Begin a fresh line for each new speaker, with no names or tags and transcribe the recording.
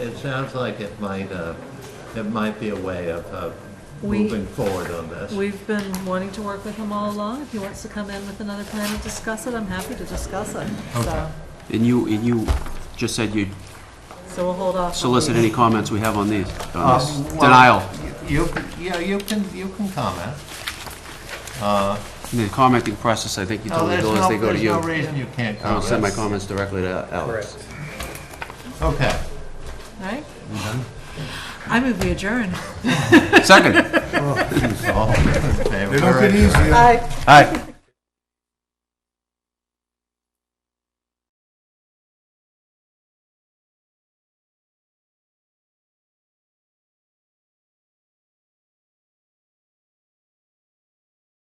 it sounds like it might, uh, it might be a way of, of
We-
moving forward on this.
We've been wanting to work with him all along. If he wants to come in with another plan and discuss it, I'm happy to discuss it. So,
And you, and you just said you'd
so we'll hold off. on
solicit
these.
any comments we have on these, on this
Um, well,
Uh, denial.
You, yeah, you can, you can comment.
The commenting process, I think you
No,
told me,
there's
Bill, is
no,
they go to
there's no
you.
reason you can't comment.
I'll send my comments directly to Alex.
Okay.
All right? I move we adjourn.
Second.
All in favor?
They don't get easier.
Aye.
Aye.